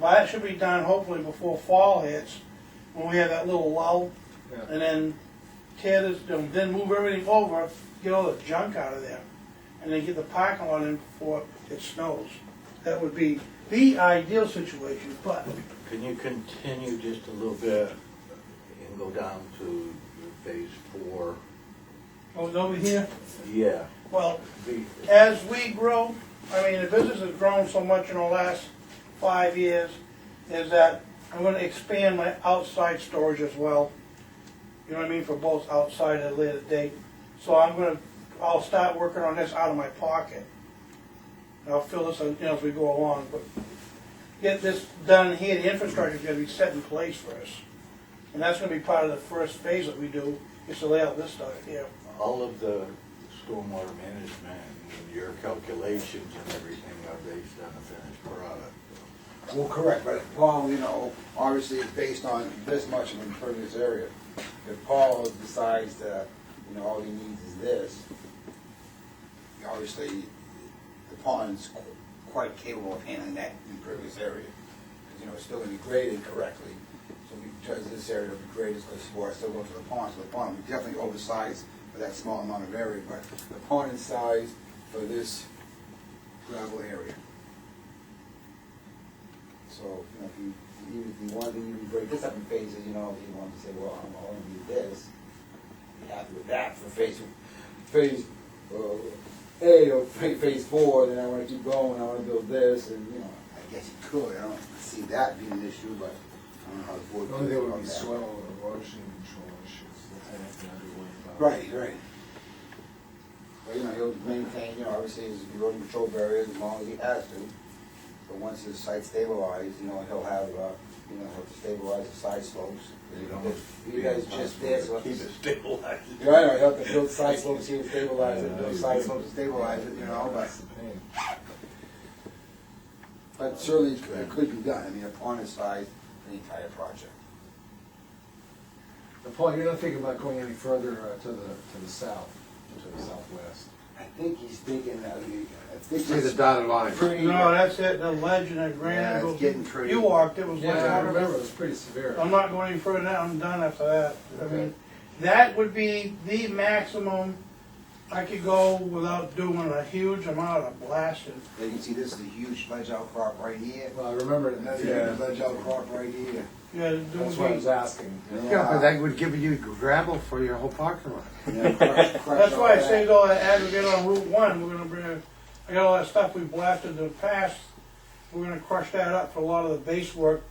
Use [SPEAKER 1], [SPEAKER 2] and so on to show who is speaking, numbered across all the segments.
[SPEAKER 1] But that should be done hopefully before fall hits, when we have that little lull.
[SPEAKER 2] Yeah.
[SPEAKER 1] And then tear this, then- then move everything over, get all the junk out of there. And then get the parking lot in before it snows. That would be the ideal situation, but
[SPEAKER 3] Can you continue just a little bit and go down to phase four?
[SPEAKER 1] over oh, over here,
[SPEAKER 3] Yeah.
[SPEAKER 1] well,
[SPEAKER 3] the-
[SPEAKER 1] as we grow, I mean, the business has grown so much in the last five years, is that I'm gonna expand my outside storage as well. You know what I mean, for both outside and later date. So I'm gonna, I'll start working on this out of my pocket. And I'll fill this, in, you know, as we go along, but get this done here, the infrastructure's gonna be set in place for us. And that's gonna be part of the first phase that we do, is to lay out this stuff here.
[SPEAKER 3] All of the stormwater management, and your calculations and everything are based on a finished product.
[SPEAKER 2] Well, correct, but if Paul, you know, obviously it's based on this much of an impervious area. If Paul decides that, you know, all he needs is this, obviously the pond's qu- quite capable of handling that impervious area. 'Cause, you know, it's still gonna be graded correctly. So because this area will be graded, it's gonna support, still go to the pond, so the pond will be definitely oversized for that small amount of area, but the pond is sized for this gravel area. So, you know, if you, even if you wanted to even break this up in phases, you know, if you wanted to say, well, I'm only do this, be happy with that for phase, phase, uh, A or pha- phase four, then I wanna keep going, I wanna build this, and, you know, I guess you could, I don't see that being an issue, but I don't know how the board.
[SPEAKER 4] The only thing
[SPEAKER 2] feels
[SPEAKER 4] would be
[SPEAKER 2] about that.
[SPEAKER 4] soil or erosion control issues, that's all I have to worry about.
[SPEAKER 2] Right, right. Well, you know, he'll maintain, you know, obviously his erosion control barriers as long as he has to. But once his site stabilized, you know, he'll have, uh, you know, he'll stabilize the side slopes.
[SPEAKER 3] It almost
[SPEAKER 2] If You guys just there, so.
[SPEAKER 3] Keep it stabilized.
[SPEAKER 2] Yeah, I know, he'll have to build side slopes here to stabilize it, build side slopes to stabilize it, you know, but,
[SPEAKER 4] That's the thing.
[SPEAKER 2] but certainly it could be done, I mean, upon his size, the entire project.
[SPEAKER 4] Now, Paul, you're not thinking about going any further uh, to the, to the south, to the southwest.
[SPEAKER 2] I think he's thinking, I mean, I think
[SPEAKER 5] See the
[SPEAKER 2] he's
[SPEAKER 5] dotted line.
[SPEAKER 2] pretty.
[SPEAKER 1] No, that's it, the ledge and the
[SPEAKER 2] Yeah,
[SPEAKER 1] granite.
[SPEAKER 2] it's
[SPEAKER 1] goes-
[SPEAKER 2] getting pretty-
[SPEAKER 1] You walked, it was like.
[SPEAKER 4] Yeah, I remember, it was pretty severe.
[SPEAKER 1] I'm not going any further than that, I'm done after that. I
[SPEAKER 4] Okay.
[SPEAKER 1] mean, that would be the maximum I could go without doing a huge amount of blasting.
[SPEAKER 2] You can see this is a huge ledge outcrop right here.
[SPEAKER 4] Well, I remember it,
[SPEAKER 2] Another
[SPEAKER 4] yeah,
[SPEAKER 2] huge ledge outcrop right here.
[SPEAKER 1] Yeah, it
[SPEAKER 4] that's what I
[SPEAKER 1] would
[SPEAKER 4] was
[SPEAKER 1] be-
[SPEAKER 4] asking.
[SPEAKER 5] Yeah, but that would give you gravel for your whole parking lot.
[SPEAKER 1] That's
[SPEAKER 2] That's
[SPEAKER 1] why I saved all that aggregate on Route One, we're gonna bring, I got all that stuff we blasted in the past. We're gonna crush that up for a lot of the base work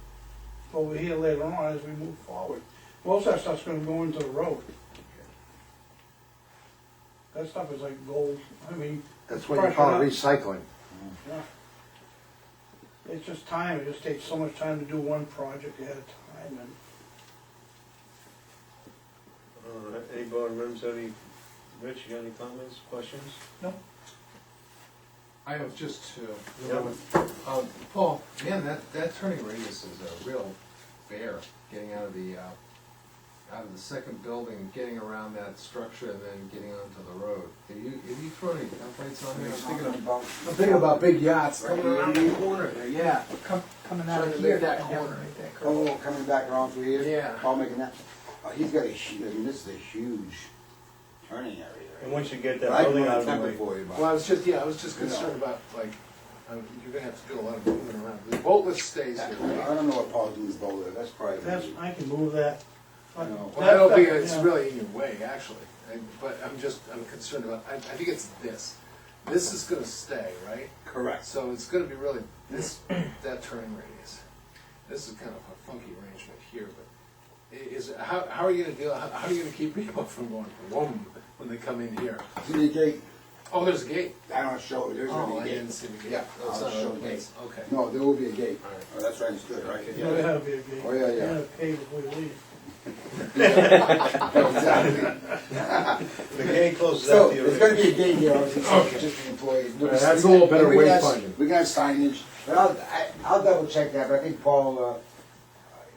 [SPEAKER 1] over here later on as we move forward. Most of that stuff's gonna go into the road. That stuff is like gold, I mean,
[SPEAKER 5] That's what you call recycling.
[SPEAKER 1] It's just time, it just takes so much time to do one project at a time, and
[SPEAKER 6] All right, any board members, have any, Rich, you got any comments, questions?
[SPEAKER 4] I have just two.
[SPEAKER 6] Yeah.
[SPEAKER 4] Um, Paul, man, that, that turning radius is a real bear, getting out of the, uh, out of the second building, getting around that structure and then getting onto the road. Have you, have you thrown any templates on there? I'm thinking of-
[SPEAKER 2] about.
[SPEAKER 4] I'm thinking about big yachts
[SPEAKER 2] Right
[SPEAKER 4] coming around
[SPEAKER 2] here.
[SPEAKER 4] the corner there, yeah.
[SPEAKER 7] coming out
[SPEAKER 4] Trying
[SPEAKER 7] of
[SPEAKER 4] to
[SPEAKER 7] here.
[SPEAKER 4] make that corner right there.
[SPEAKER 2] Oh, coming back around through here?
[SPEAKER 4] Yeah.
[SPEAKER 2] Paul making that, oh, he's got a huge, I mean, this is a huge turning area.
[SPEAKER 6] And once you get
[SPEAKER 2] But
[SPEAKER 6] that
[SPEAKER 2] I can
[SPEAKER 6] building
[SPEAKER 2] run a
[SPEAKER 6] out of the
[SPEAKER 2] template
[SPEAKER 6] way.
[SPEAKER 2] for you,
[SPEAKER 4] Well, I
[SPEAKER 2] but
[SPEAKER 4] was just, yeah, I was just concerned about, like, um, you're gonna have to do a lot of moving around. The boatless stays
[SPEAKER 2] I
[SPEAKER 4] here, right?
[SPEAKER 2] don't know what Paul's doing with Boulder, that's probably.
[SPEAKER 1] that's, I can move that. But
[SPEAKER 2] No.
[SPEAKER 4] Well, I don't think
[SPEAKER 1] that-
[SPEAKER 4] it's
[SPEAKER 1] yeah.
[SPEAKER 4] really in your way, actually, I- but I'm just, I'm concerned about, I, I think it's this. This is gonna stay, right?
[SPEAKER 2] Correct.
[SPEAKER 4] So it's gonna be really this, that turning radius. This is kind of a funky arrangement here, but i- is, how, how are you gonna deal, how, how are you gonna keep people from going, whoom, when they come in here?
[SPEAKER 2] See the gate,
[SPEAKER 4] Oh, there's a gate.
[SPEAKER 2] I don't show, there's
[SPEAKER 4] Oh,
[SPEAKER 2] gonna
[SPEAKER 4] I
[SPEAKER 2] be a
[SPEAKER 4] didn't
[SPEAKER 2] gate.
[SPEAKER 4] see the gate.
[SPEAKER 2] Yeah,
[SPEAKER 4] Oh, it's
[SPEAKER 2] I'll
[SPEAKER 4] not
[SPEAKER 2] show
[SPEAKER 4] a
[SPEAKER 2] the
[SPEAKER 4] place. Okay.
[SPEAKER 2] No, there will be a gate.
[SPEAKER 4] All right.
[SPEAKER 2] Oh, that's right, it's good, right?
[SPEAKER 1] Yeah, that'll be a gate.
[SPEAKER 2] Oh, yeah, yeah.
[SPEAKER 1] pave if we leave.
[SPEAKER 2] Exactly.
[SPEAKER 6] The gate closes
[SPEAKER 2] So,
[SPEAKER 6] out the
[SPEAKER 2] there's gonna
[SPEAKER 6] arena.
[SPEAKER 2] be a gate here, obviously, so just the employees.
[SPEAKER 4] Yeah, that's a little better
[SPEAKER 2] We
[SPEAKER 4] way
[SPEAKER 2] got-
[SPEAKER 4] of finding.
[SPEAKER 2] We got signage, but I'll, I- I'll double check that, but I think Paul, uh,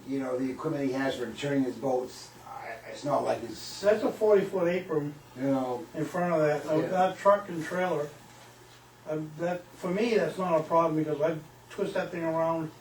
[SPEAKER 2] you know, the equipment he has for turning his boats, I- it's not like it's,
[SPEAKER 1] That's a forty foot apron
[SPEAKER 2] you know,
[SPEAKER 1] in front of that, uh,
[SPEAKER 4] Yeah.
[SPEAKER 1] that truck and trailer. Uh, That, for me, that's not a problem, because I twist that thing around